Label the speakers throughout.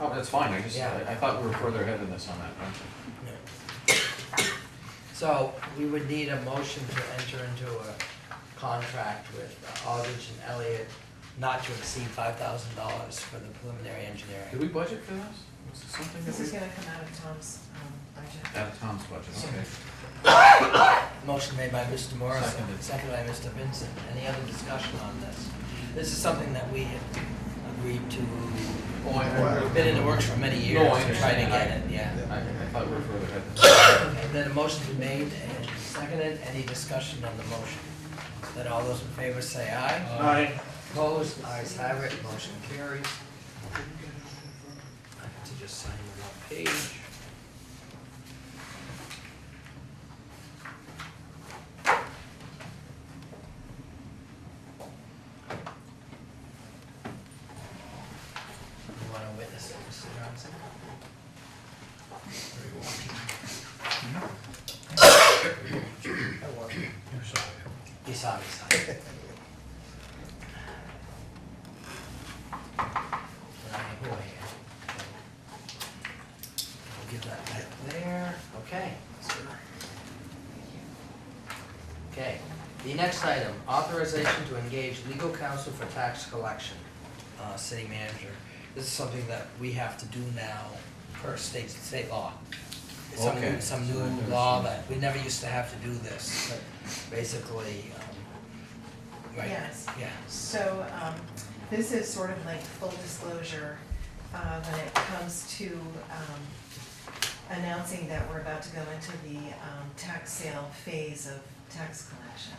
Speaker 1: Oh, that's fine, I just,
Speaker 2: Yeah.
Speaker 1: I I thought we were further ahead than this on that, one.
Speaker 2: So we would need a motion to enter into a contract with Aldridge and Elliott not to exceed five thousand dollars for the preliminary
Speaker 1: Did
Speaker 2: engineering.
Speaker 1: we budget for this? Was it something
Speaker 3: This is
Speaker 1: that
Speaker 3: gonna come out of Tom's um,
Speaker 1: we,
Speaker 3: budget.
Speaker 1: out of Tom's budget, okay.
Speaker 2: Motion made by Mr. Morris,
Speaker 1: Seconded.
Speaker 2: seconded by Mr. Vincent. Any other discussion on this? This is something that we had agreed to,
Speaker 1: Oh, I, I,
Speaker 2: been in the works for many years
Speaker 1: No, I
Speaker 2: to try to
Speaker 1: understand.
Speaker 2: get it, yeah.
Speaker 1: I I thought we were further ahead than this.
Speaker 2: Okay, then a motion's been made and seconded. Any discussion on the motion? Then all those in favor say aye.
Speaker 4: Aye.
Speaker 2: Opposed, ayes have it, motion carries. I have to just sign the one page. You wanna witness it, Mr. Johnson? Or you won't? I won't. You saw me sign. And I who I am. I'll give that back there, okay. Okay, the next item, authorization to engage legal counsel for tax collection, uh, city manager. This is something that we have to do now per state, state law. It's Some new,
Speaker 1: Okay.
Speaker 2: some
Speaker 1: So that
Speaker 2: new
Speaker 1: there's
Speaker 2: law
Speaker 1: some-
Speaker 2: that, we never used to have to do this, but basically, um, right,
Speaker 3: Yes.
Speaker 2: yeah.
Speaker 3: So, um, this is sort of like full disclosure, uh, when it comes to, um, announcing that we're about to go into the, um, tax sale phase of tax collection.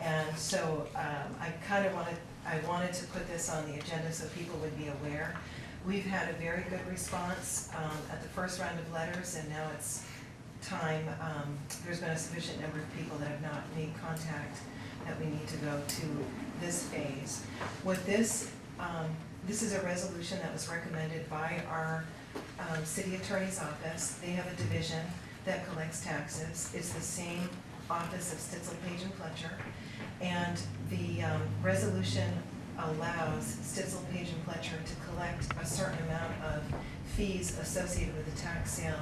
Speaker 3: And so, um, I kind of wanted, I wanted to put this on the agenda so people would be aware. We've had a very good response, um, at the first round of letters, and now it's time, um, there's been a sufficient number of people that have not made contact that we need to go to this phase. What this, um, this is a resolution that was recommended by our, um, city attorney's office. They have a division that collects taxes. It's the same office of Stitzel Page and Fletcher. And the, um, resolution allows Stitzel Page and Fletcher to collect a certain amount of fees associated with the tax sale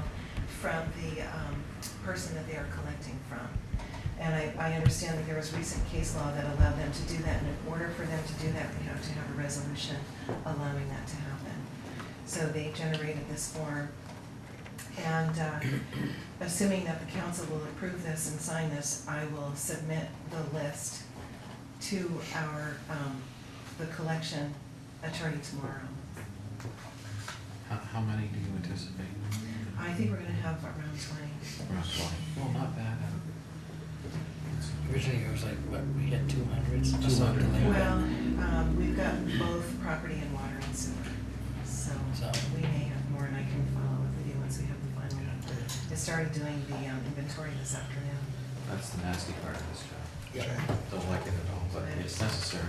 Speaker 3: from the, um, person that they are collecting from. And I, I understand that there was recent case law that allowed them to do that, and in order for them to do that, they have to have a resolution allowing that to happen. So they generated this form. And uh, assuming that the council will approve this and sign this, I will submit the list to our, um, the collection attorney tomorrow.
Speaker 1: How, how many do you anticipate?
Speaker 3: I think we're gonna have around twenty.
Speaker 1: Around 20. Well, not bad.
Speaker 2: Originally, it was like, what, we had two hundreds?
Speaker 1: 200, yeah.
Speaker 3: Well, um, we've got both property and water and sewer, so
Speaker 2: So-
Speaker 3: we may have more, and I can follow up with you once we have the final. I started doing the um, inventory this afternoon.
Speaker 1: That's the nasty part of this job.
Speaker 2: Yeah.
Speaker 1: Don't like it at all, but it's necessary.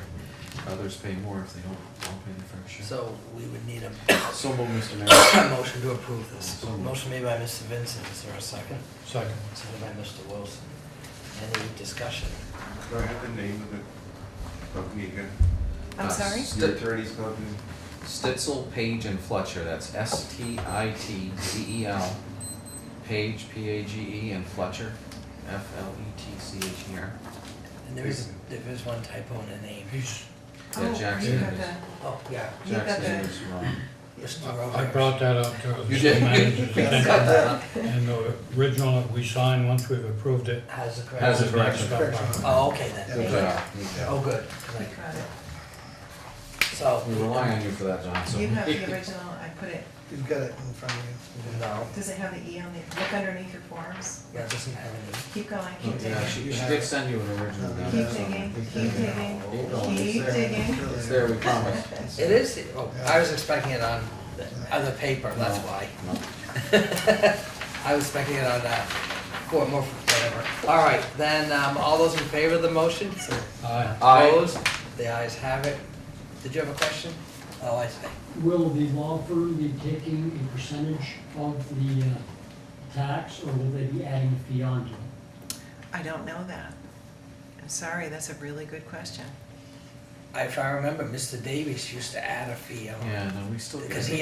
Speaker 1: Others pay more if they don't, don't pay the fair share.
Speaker 2: So we would need a
Speaker 1: So moved, Mr. Mayor.
Speaker 2: a motion to approve this.
Speaker 1: So moved.
Speaker 2: Motion made by Mr. Vincent, is there a second? Second. Seconded by Mr. Wilson. Any discussion?
Speaker 5: Do I have the name of the company again?
Speaker 3: I'm
Speaker 1: Uh,
Speaker 3: sorry?
Speaker 1: s-
Speaker 5: Your attorney's company?
Speaker 1: Stitzel, Page, and Fletcher, that's S T I T Z E L, Page, P A G E, and Fletcher, F L E T C H E R.
Speaker 2: And there is, there is one typo in the name.
Speaker 1: Yeah, Jackson
Speaker 3: Oh, you got
Speaker 1: is-
Speaker 3: the,
Speaker 2: Oh, yeah.
Speaker 3: You got
Speaker 1: Jackson
Speaker 3: that.
Speaker 1: is wrong.
Speaker 2: Mr.
Speaker 6: I
Speaker 2: Rohrs.
Speaker 6: brought that up to
Speaker 1: You
Speaker 6: the
Speaker 1: did.
Speaker 6: city manager's
Speaker 1: You
Speaker 6: attention,
Speaker 1: got that.
Speaker 6: and the original that we signed, once we've approved it.
Speaker 2: Has the correct.
Speaker 1: Has a
Speaker 6: correct
Speaker 1: correction.
Speaker 6: stuff on it.
Speaker 2: Oh, okay then.
Speaker 3: Thank
Speaker 1: Good
Speaker 3: you.
Speaker 1: job.
Speaker 2: Oh, good.
Speaker 3: we got it.
Speaker 2: So.
Speaker 1: We rely on you for that, John, so.
Speaker 3: You have the original, I put it,
Speaker 7: You've got it in front of you.
Speaker 2: No,
Speaker 3: does it have the E on the, look underneath your forms?
Speaker 2: that doesn't have any.
Speaker 3: Keep going, keep digging.
Speaker 1: Yeah, she, she did send you an original down
Speaker 3: Keep
Speaker 1: there
Speaker 3: digging,
Speaker 1: somewhere.
Speaker 3: keep digging, keep digging.
Speaker 1: It's there, we promise.
Speaker 2: It is, the- oh, I was expecting it on the other paper, that's
Speaker 1: No,
Speaker 2: why.
Speaker 1: no.
Speaker 2: I was expecting it on that, or more, whatever. All right, then, um, all those in favor of the motion?
Speaker 6: Aye.
Speaker 1: Aye.
Speaker 2: Opposed? The ayes have it. Did you have a question? Oh, I see.
Speaker 8: Will the law firm be taking a percentage of the uh, tax, or will they be adding a fee onto it?
Speaker 3: I don't know that. I'm sorry, that's a really good question.
Speaker 2: If I remember, Mr. Davies used to add a fee on.
Speaker 1: Yeah, no, we still. get
Speaker 2: Because
Speaker 1: it.
Speaker 2: he